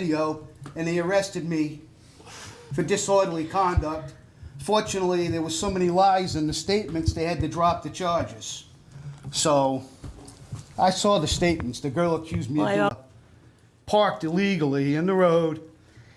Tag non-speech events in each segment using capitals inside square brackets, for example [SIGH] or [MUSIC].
video and they arrested me for disorderly conduct. Fortunately, there was so many lies in the statements, they had to drop the charges. So, I saw the statements. The girl accused me of Well, I- doing- parked illegally in the road,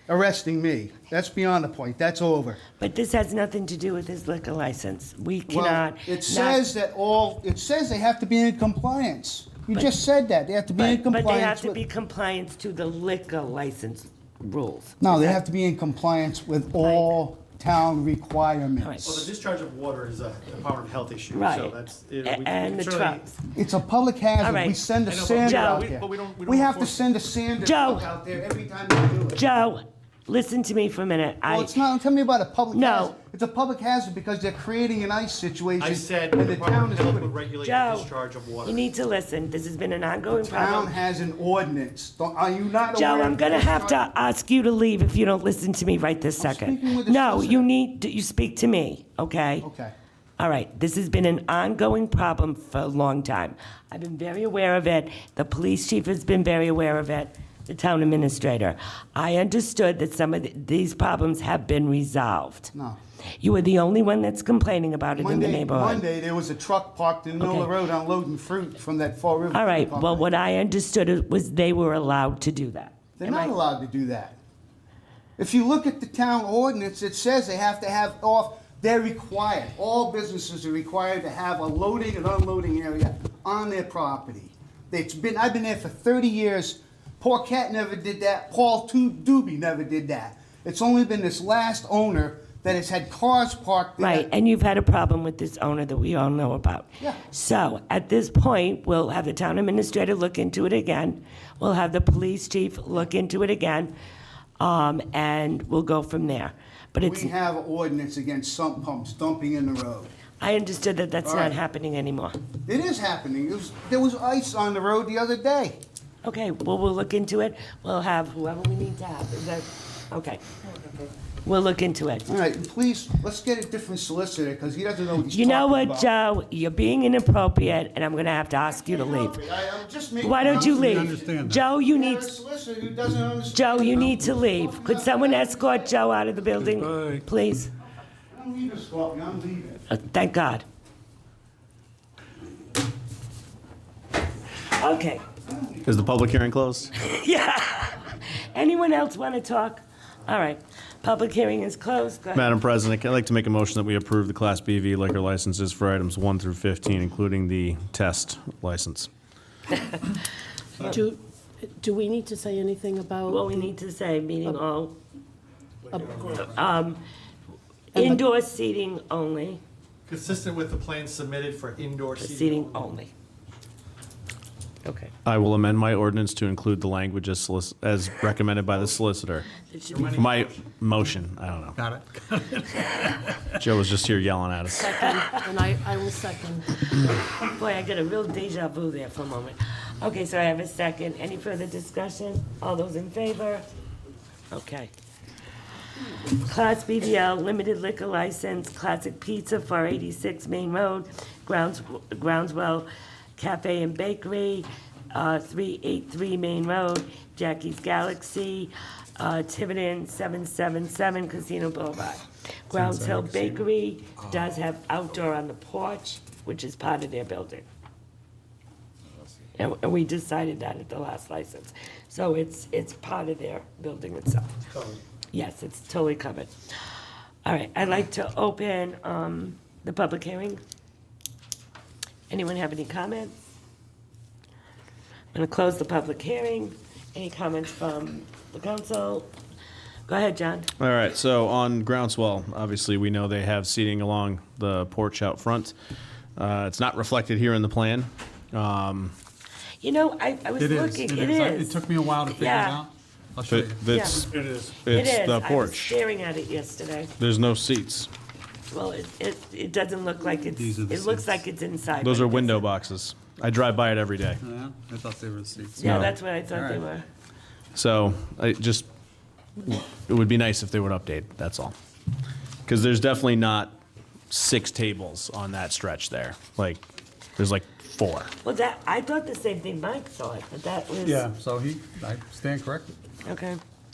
arresting me. That's beyond the point. That's over. But this has nothing to do with his liquor license. We Well, cannot. It not- says that all, it says they have to be in compliance. You But- just said that. They have to be in But but they have compliance to be with. compliant to the liquor license rules. No, they have to be in compliance with all town requirements. Right. Well, the discharge of water is a Department of Health issue, so Right. that's. you know, we- A- And the certainly- trucks. It's a public hazard. All right. We send a I know, but sander Joe. out we- there. but we don't- we We don't have to enforce it. send a sander Joe. truck out there every time we do it. Joe, listen to me for a minute. Well, I, it's not, tell me about a public No. hazard. It's a public hazard because they're creating an ice situation. I said and the Department of town is Health doing would it. regulate the Joe, discharge of you water. need to listen. This has been an ongoing Town problem. has an ordinance. Don't- Are you not aware? Joe, I'm of gonna that? have to ask you to leave if you don't listen to me right this second. speaking with the No, solicitor. you need, you speak to me, okay? Okay. All right, this has been an ongoing problem for a long time. I've been very aware of it. The police chief has been very aware of it, the town administrator. I understood that some of th- these problems have been resolved. No. You are the only one that's complaining about it in the Monday, neighborhood. Monday, there was a truck parked in the middle of the Okay. road unloading fruit from that Fall River. All Fruit right, well, Company. what I understood it was they were allowed to do that. They're Am not I- allowed to do that. If you look at the town ordinance, it says they have to have off, they're required, all businesses are required to have a loading and unloading area on their property. It's been, I've been there for thirty years, Paul Cat never did that, Paul Tu- Doobie never did that. It's only been this last owner that has had cars parked there. Right, and you've had a problem with this owner that we all know about. Yeah. So at this point, we'll have the town administrator look into it again. We'll have the police chief look into it again, um, and we'll go from there. But it's, We have an ordinance against sump pumps dumping in the road. I understood that that's All not right. happening anymore. It is happening, it was, there was ice on the road the other day. Okay, well, we'll look into it. We'll have whoever we need to have. Is that, okay. We'll look into it. All right, and please, let's get a different solicitor, because he doesn't know what he's You talking know about. what, Joe? You're being inappropriate, and I'm gonna have to ask you to leave. Why don't you leave? Joe, You you have need a solicitor who doesn't understand. Joe, you need to leave. Could someone escort Joe out of the building? Goodbye. Please. I'm leaving, Scorpio, I'm leaving. Uh, Thank God. Okay, [LAUGHS] Is the public hearing closed? yeah. Anyone else want to talk? All right, public hearing is closed. Go ahead. Madam President, I'd like to make a motion that we approve the Class BV liquor licenses for items 1 through 15, including the test license. Do, do we need to say anything What about we need to say, meeting Oh. all, And the- indoor seating only, Consistent with the plan submitted for indoor seating. seating only. Okay. I will amend my ordinance to include the language as solic- as recommended by the solicitor. It should be My motion, I don't know. Got it. [LAUGHS] Joe was just here yelling at us. second? And I, I will second. Boy, I got a real deja vu there for a moment. Okay, so I have a second. Any further discussion? All those in favor? Okay. Class BBL, limited liquor license, Classic Pizza, 486 Main Road, Grounds Groundswell Cafe and Bakery, uh, 383 Main Road, Jackie's Galaxy, uh, Tiverton, 777 Casino Boulevard. Grounds Hill Bakery does have outdoor on the porch, which is part of their building. And and we decided that at the last license. So it's, it's part of their building itself. Yes, it's totally covered. All right, I'd like to open um, the public hearing. Anyone have any comments? I'm going to close the public hearing. Any comments from the council? Go ahead, John. All right, so on Groundswell, obviously, we know they have seating along the porch out front. Uh, It's not reflected here in the plan. Um, You know, I I was It is, looking, it it is. I- It is. took me a while to figure it Yeah. out. I'll show but you. It's It is. It it's is. the I was porch. staring at it yesterday. There's no seats. Well, it, it it doesn't look like it's, These are the it looks seats. like it's inside. Those but are it window doesn't. boxes. I drive by it every day. Yeah, I thought they were seats. Yeah, No. that's what I thought they All were. right. So I just, it would be nice if they would update, that's all. Because there's definitely not six tables on that stretch there. Like, there's like four. Well, that, I thought the same thing Mike thought, but that was. Yeah, so he, I stand corrected. Okay.